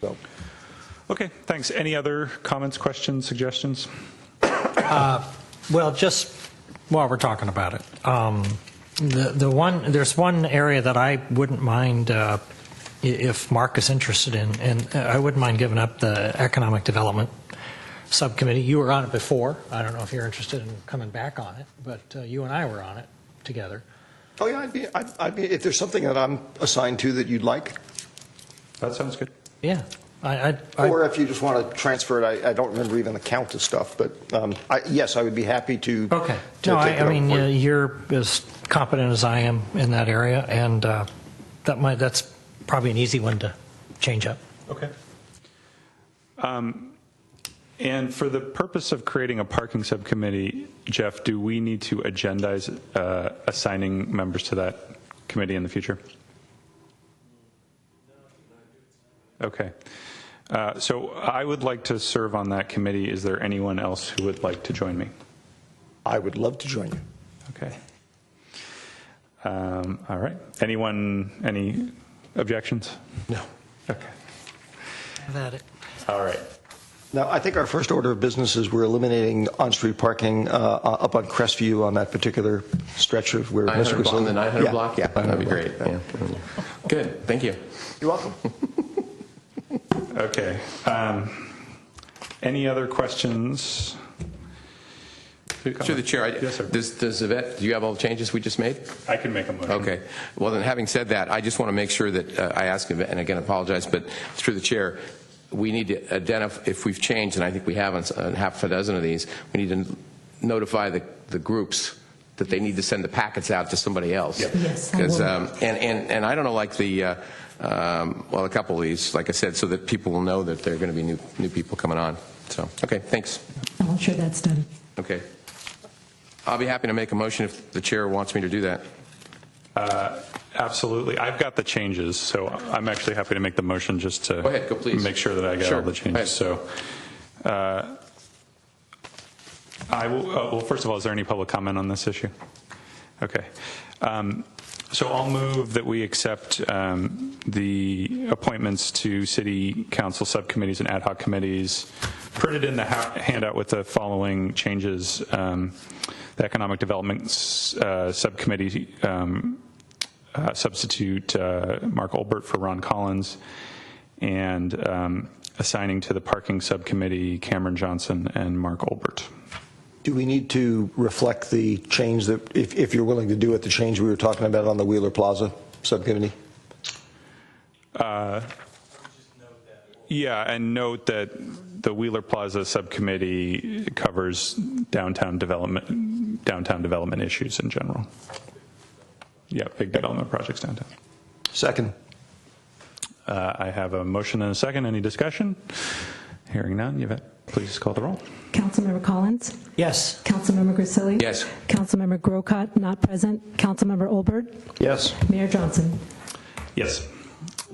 So, Okay, thanks. Any other comments, questions, suggestions? Well, just while we're talking about it, um, the the one there's one area that I wouldn't mind uh, i- if Mark is interested in, and uh, I wouldn't mind giving up the economic development subcommittee. You were on it before. I don't know if you're interested in coming back on it, but uh, you and I were on it together. oh yeah, I'd be, I'd, I'd be, if there's something that I'm assigned to that you'd like, That sounds good. Yeah, I I, I or if you just want to transfer it, I, I don't remember even the count of stuff, but um, I, yes, I would be happy to. okay. to No, take I, it I up mean for you. uh, you're as competent as I am in that area, and uh, that might that's probably an easy one to change up. Okay. Um, And for the purpose of creating a parking subcommittee, Jeff, do we need to agendize uh, assigning members to that committee in the future? Okay. Uh, So I would like to serve on that committee. Is there anyone else who would like to join me? uh, I would love to join you. Okay. Um, All right. Anyone, any objections? No. Okay. That it. All right. Now, I think our first order of business is we're eliminating on-street parking uh, uh, up on Crestview on that particular stretch of where. 900 Mr. block, on the Griselli- 900 Yeah, block? Yeah. That'd 900 be block, great. yeah. Yeah. Good. Thank you. You're welcome. Okay. Um, Any other questions? Through the chair, I- Yes, sir. does, does Yvette, do you have all the changes we just made? I can make a motion. Okay. Well, then, having said that, I just want to make sure that uh, I ask, Yvette- and again, apologize, but through the chair, we need to identify, if we've changed, and I think we have on s- on half a dozen of these, we need to notify the, the groups that they need to send the packets out to somebody else. Yes, I Because, will. um, and, and, and I don't know, like the, uh, um, well, a couple of these, like I said, so that people will know that there are going to be new, new people coming on. So, okay, thanks. I'm sure that's done. Okay. I'll be happy to make a motion if the chair wants me to do that. Absolutely. I've got the changes, so I'm actually happy to make the motion just to. Go ahead, go please. Make sure that I got all Sure. the Go ahead. changes. So uh, I will, uh, well, first of all, is there any public comment on this issue? Okay. Um, So I'll move that we accept um, the appointments to city council subcommittees and ad hoc committees printed in the ha- handout with the following changes. Um, The Economic Development uh, Subcommittee um, uh, substitute uh, Mark Olbert for Ron Collins, and um, assigning to the parking subcommittee Cameron Johnson and Mark Olbert. Do we need to reflect the change that, if, if you're willing to do it, the change we were talking about on the Wheeler Plaza subcommittee? Yeah, and note that the Wheeler Plaza Subcommittee covers downtown development, downtown development issues in general. Yeah, big development projects downtown. Second. Uh, I have a motion and a second. Any discussion? Hearing none. Yvette, please call the roll. Councilmember Collins? Yes. Councilmember Grisilli? Yes. Councilmember Grocott, not present. Councilmember Olbert? Yes. Mayor Johnson? Yes.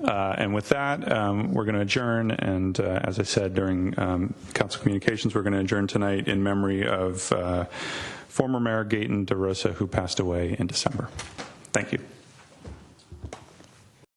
Uh, And with that, um, we're going to adjourn, and uh, as I said during um, council communications, we're going to adjourn tonight in memory of uh, former Mayor Gaten DeRosa, who passed away in December. Thank you.